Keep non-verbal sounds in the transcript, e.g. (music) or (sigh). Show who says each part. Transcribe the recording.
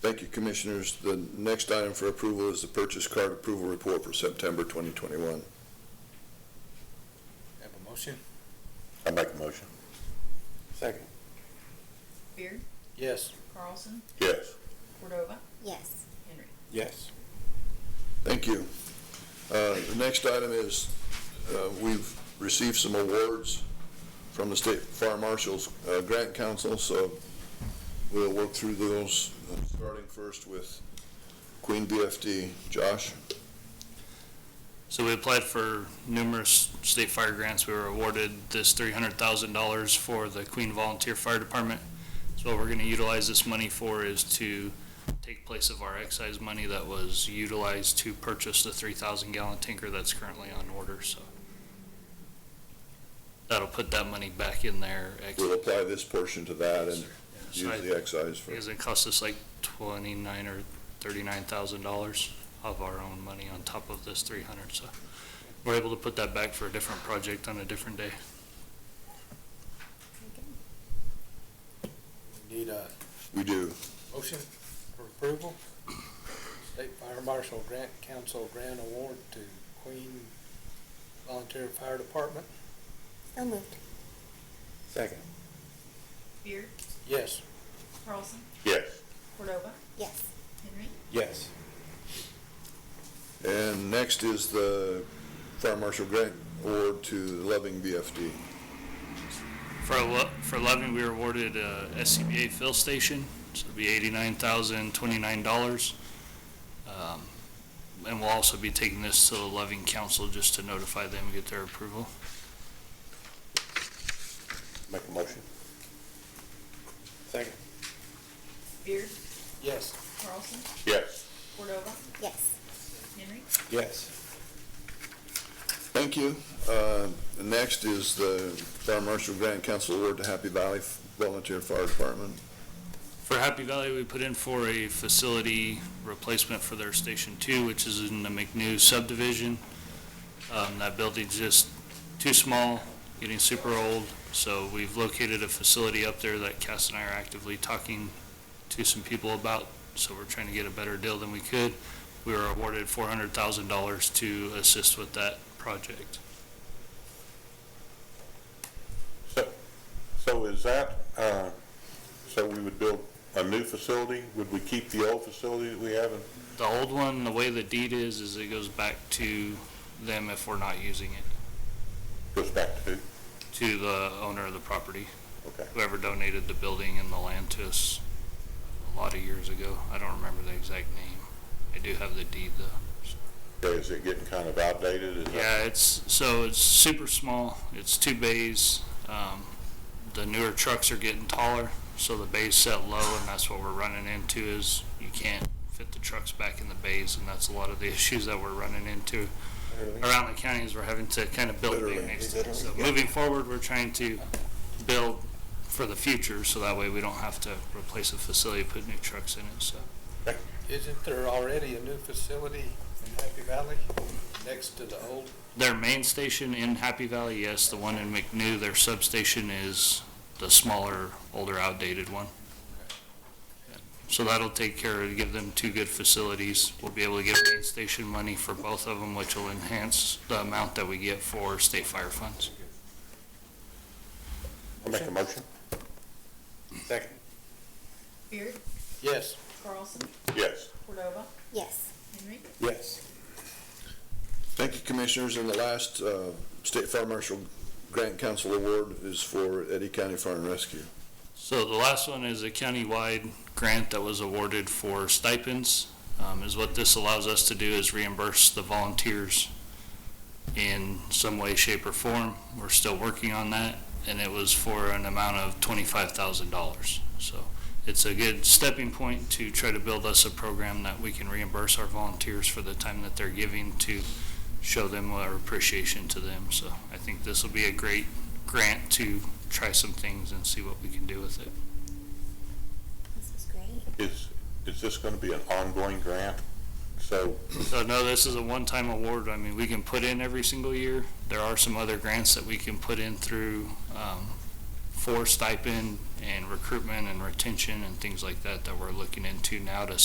Speaker 1: Thank you, Commissioners. The next item for approval is the purchase card approval report for September 2021.
Speaker 2: Have a motion?
Speaker 3: I make a motion.
Speaker 2: Second.
Speaker 4: Beard,
Speaker 2: Yes.
Speaker 4: Carlson,
Speaker 3: Yes.
Speaker 4: Cordova,
Speaker 5: yes,
Speaker 4: Henry.
Speaker 2: Yes.
Speaker 1: Thank you. Uh, The next item is, uh, we've received some awards from the State Fire Marshal's uh, Grant Council, so we'll work through those, uh, starting first with Queen BFD. Josh?
Speaker 6: So we applied for numerous state fire grants. We were awarded this three hundred thousand dollars for the Queen Volunteer Fire Department. So what we're gonna utilize this money for is to take place of our excise money that was utilized to purchase the three thousand gallon tanker that's currently on order, so. That'll put that money back in there.
Speaker 1: We'll apply this portion to that and
Speaker 6: So I-
Speaker 1: use the excise for,
Speaker 6: Because it cost us like twenty-nine or thirty-nine thousand dollars of our own money on top of this three hundred, so we're able to put that back for a different project on a different day.
Speaker 2: Need a
Speaker 1: we do.
Speaker 2: motion for approval? State Fire Marshal Grant Council Grant Award to Queen Volunteer Fire Department?
Speaker 5: so moved,
Speaker 2: Second.
Speaker 4: Beard,
Speaker 2: Yes.
Speaker 4: Carlson,
Speaker 3: Yes.
Speaker 4: Cordova,
Speaker 5: yes,
Speaker 4: Henry.
Speaker 2: Yes.
Speaker 1: And next is the Fire Marshal Grant Award to Loving BFD.
Speaker 6: For, Lo- for Loving, we were awarded uh, a SCBA fill station, so it'll be eighty-nine thousand, twenty-nine dollars. Um, And we'll also be taking this to the Loving Council just to notify them and get their approval.
Speaker 3: Make a motion.
Speaker 2: Second.
Speaker 4: Beard,
Speaker 2: Yes.
Speaker 4: Carlson,
Speaker 3: Yes.
Speaker 4: Cordova,
Speaker 5: yes,
Speaker 4: Henry.
Speaker 2: Yes.
Speaker 1: Thank you. Uh, the Next is the Fire Marshal Grant Council Award to Happy Valley Volunteer Fire Department.
Speaker 6: For Happy Valley, we put in for a facility replacement for their Station Two, which is in the McNew subdivision. Um, that building's just too small, getting super old, so we've located a facility up there that Cass and I are actively talking to some people about, so we're trying to get a better deal than we could. We were awarded four hundred thousand dollars to assist with that project.
Speaker 3: So, so is that, uh, so we would build a new facility? Would we keep the old facility that we have? in-
Speaker 6: The old one, the way the deed is, is it goes back to them if we're not using it,
Speaker 3: Goes back to who?
Speaker 6: to the owner of the property.
Speaker 3: Okay.
Speaker 6: whoever donated the building and the land to us a lot of years ago. I don't remember the exact name. I do have the deed though.
Speaker 3: Okay, Is it getting kind of outdated? Is that-
Speaker 6: Yeah, it's, so it's super small. It's two bays. Um, the newer trucks are getting taller, so the bays set low and that's what we're running into is you can't fit the trucks back in the bays and that's a lot of the (laughs) issues that we're running into around the county is we're having to kind of build big next to it. So moving forward, we're trying to build for the future, so that way we don't have to replace a facility, put new trucks in it, so.
Speaker 2: Isn't there already a new facility in Happy Valley next to the old?
Speaker 6: Their main station in Happy Valley, yes, the one in McNew, their substation is the smaller, older outdated one. So that'll take care of, give them two good facilities. We'll be able to get main station money for both of them, which will enhance the amount that we get for state fire funds.
Speaker 3: I Make a motion?
Speaker 2: Second.
Speaker 4: Beard,
Speaker 2: Yes.
Speaker 4: Carlson,
Speaker 3: Yes.
Speaker 4: Cordova,
Speaker 5: yes,
Speaker 4: Henry.
Speaker 2: Yes.
Speaker 1: Thank you, Commissioners. And the last uh, State Fire Marshal Grant Council Award is for Eddie County Fire and Rescue.
Speaker 6: So the last one is a countywide grant that was awarded for stipends. Um, is what this allows us to do is reimburse the volunteers in some way, shape, or form. We're still working on that, and it was for an amount of twenty-five thousand dollars. So it's a good stepping point to try to build us a program that we can reimburse our volunteers for the time that they're giving to show them our appreciation to them. So I think this will be a great grant to try some things and see what we can do with it.
Speaker 5: this is great,
Speaker 3: Is, is this going to be an ongoing grant? So,
Speaker 6: So no, this is a one-time award. I mean, we can put in every single year. There are some other grants that we can put in through, um, for stipend and recruitment and retention and things like that that we're looking into now to